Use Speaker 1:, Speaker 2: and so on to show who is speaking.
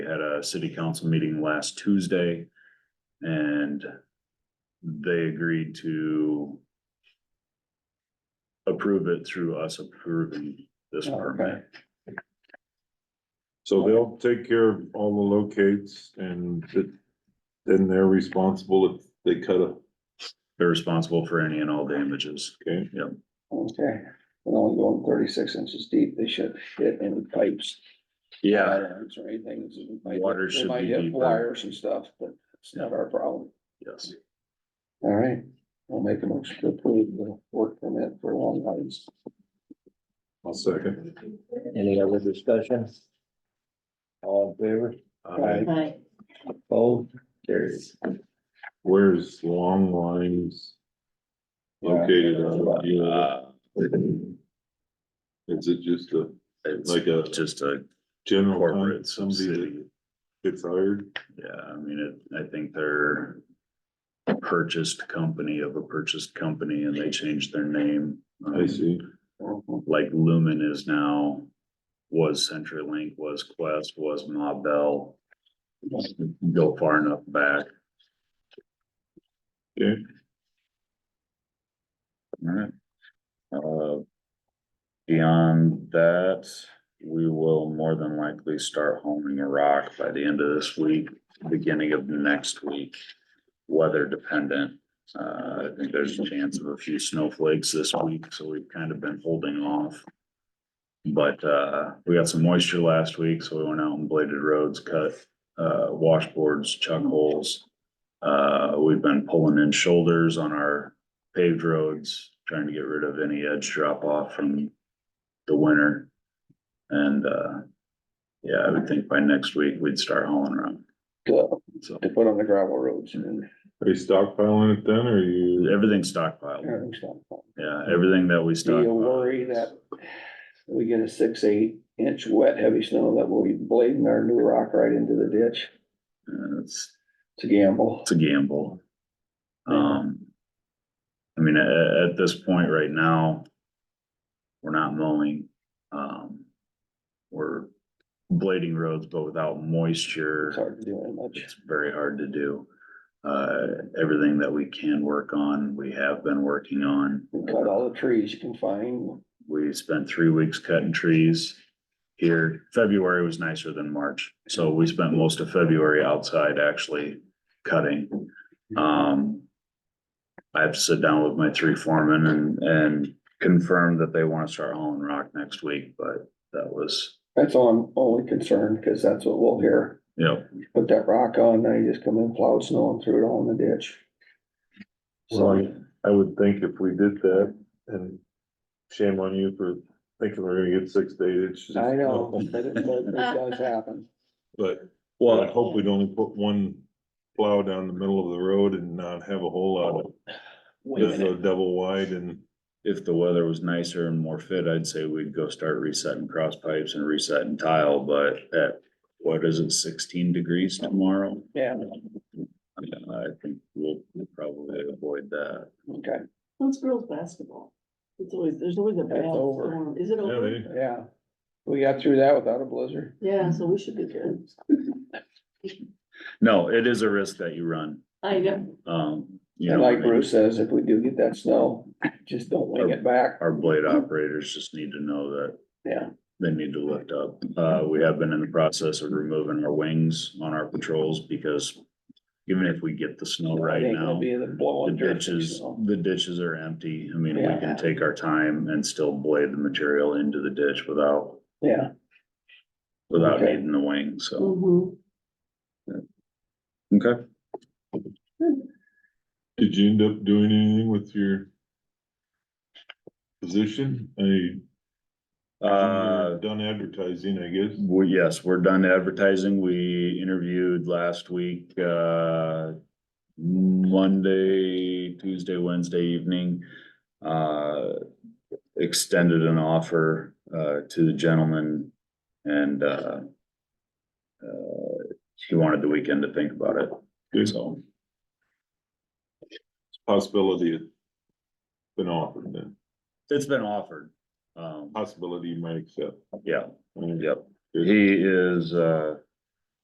Speaker 1: had a city council meeting last Tuesday. And they agreed to approve it through us approving this
Speaker 2: Oh,
Speaker 1: permit.
Speaker 3: So they'll take care of all the locates and th- then they're responsible if they cut a,
Speaker 1: They're responsible for any and all damages.
Speaker 3: okay?
Speaker 2: Okay, we're only going thirty-six inches deep, they should fit in pipes. wires Or anything. It might-
Speaker 1: Water
Speaker 2: it
Speaker 1: should
Speaker 2: might
Speaker 1: be
Speaker 2: hit
Speaker 1: deeper.
Speaker 2: Wires and stuff, but it's not our problem.
Speaker 1: Yes.
Speaker 2: All right, I'll make a motion to approve the work permit for Long Island.
Speaker 3: I'll second.
Speaker 4: Any other discussion? All in favor,
Speaker 1: Uh,
Speaker 5: Right.
Speaker 4: opposed, carries.
Speaker 3: Where's Long Lines located on? Do you know?
Speaker 1: uh,
Speaker 3: Is it just a,
Speaker 1: It's
Speaker 3: like a
Speaker 1: just a
Speaker 3: general, con-
Speaker 1: corporate
Speaker 3: somebody
Speaker 1: city.
Speaker 3: that gets hired?
Speaker 1: Yeah, I mean, it, I think they're a purchased company of a purchased company and they changed their name.
Speaker 3: I see.
Speaker 1: Like Lumen is now, was CenturyLink, was Quest, was Ma Bell. Go far enough back.
Speaker 3: Okay.
Speaker 1: Alright. Uh, Beyond that, we will more than likely start homing a rock by the end of this week, beginning of next week. Weather dependent, uh, I think there's a chance of a few snowflakes this week, so we've kind of been holding off. But, uh, we got some moisture last week, so we went out and bladed roads, cut, uh, washboards, chuck holes. Uh, we've been pulling in shoulders on our paved roads, trying to get rid of any edge drop off from the winter. And, uh, yeah, I would think by next week we'd start hauling around,
Speaker 2: To,
Speaker 1: so.
Speaker 2: Uh, to put on the gravel roads and
Speaker 3: Are you stockpiling it then or are you?
Speaker 1: Everything's stockpiled,
Speaker 2: everything's done.
Speaker 1: yeah, everything that we
Speaker 2: Do
Speaker 1: stockpile.
Speaker 2: you worry that we get a six, eight inch wet, heavy snow that we'll be blading our new rock right into the ditch?
Speaker 1: Uh, It's,
Speaker 2: It's a gamble.
Speaker 1: it's a gamble. Um, I mean, at, at this point right now, we're not mowing, um, we're blading roads, but without moisture.
Speaker 2: It's hard to do that much.
Speaker 1: It's very hard to do. Uh, everything that we can work on, we have been working on.
Speaker 2: We Cut all the trees you can find.
Speaker 1: We spent three weeks cutting trees here. February was nicer than March, so we spent most of February outside actually cutting. Um, I've sat down with my three foremen and, and confirmed that they want to start hauling rock next week, but that was,
Speaker 2: That's all I'm only concerned, cause that's what we'll hear.
Speaker 1: you know,
Speaker 2: Put that rock on, now you just come in, plowed snow and threw it all in the ditch.
Speaker 3: Well,
Speaker 2: So,
Speaker 3: I would think if we did that and shame on you for thinking we're gonna get six to eight inches.
Speaker 2: I know, but it, but it does happen.
Speaker 3: But well, I
Speaker 1: well,
Speaker 3: hope we'd only put one plow down the middle of the road and not have a whole lot of,
Speaker 4: Wait a
Speaker 3: just a
Speaker 4: minute,
Speaker 3: double wide and.
Speaker 1: if the weather was nicer and more fit, I'd say we'd go start resetting cross pipes and resetting tile, but at, what is it, sixteen degrees tomorrow?
Speaker 2: Yeah,
Speaker 1: I mean, I think we'll we'll probably avoid that.
Speaker 2: okay,
Speaker 5: Well, it's girls' basketball. It's always, there's always a bad
Speaker 2: It's over.
Speaker 5: storm. Is it over?
Speaker 3: Yeah,
Speaker 2: yeah. We got through that without a blizzard.
Speaker 5: Yeah, so we should be good.
Speaker 1: No, it is a risk that you run,
Speaker 5: I know.
Speaker 1: um, you
Speaker 2: And
Speaker 1: know, I
Speaker 2: like
Speaker 1: mean,
Speaker 2: Bruce says, if we do get that snow, just don't wing it back.
Speaker 1: our blade operators just need to know that
Speaker 2: Yeah,
Speaker 1: they need to lift up. Uh, we have been in the process of removing our wings on our patrols because even if we get the snow right
Speaker 2: it ain't
Speaker 1: now.
Speaker 2: gonna be the
Speaker 1: The
Speaker 2: blowing dirt.
Speaker 1: ditches, the ditches are empty. I mean, we
Speaker 2: Yeah.
Speaker 1: can take our time and still blade the material into the ditch without,
Speaker 2: Yeah,
Speaker 1: without
Speaker 2: Okay.
Speaker 1: needing the wing, so.
Speaker 5: Mhm.
Speaker 1: Okay.
Speaker 3: Did you end up doing anything with your position? I,
Speaker 1: Uh,
Speaker 4: Uh,
Speaker 3: you're done advertising, I guess.
Speaker 1: we, yes, we're done advertising. We interviewed last week, uh, Monday, Tuesday, Wednesday evening. Uh, extended an offer, uh, to the gentleman and, uh, uh, he wanted the weekend to think about it,
Speaker 3: Good.
Speaker 1: so.
Speaker 3: Possibility has been offered then,
Speaker 1: It's been offered. Um,
Speaker 3: possibility you might accept.
Speaker 1: yeah,
Speaker 3: I mean,
Speaker 1: yep. He is, uh,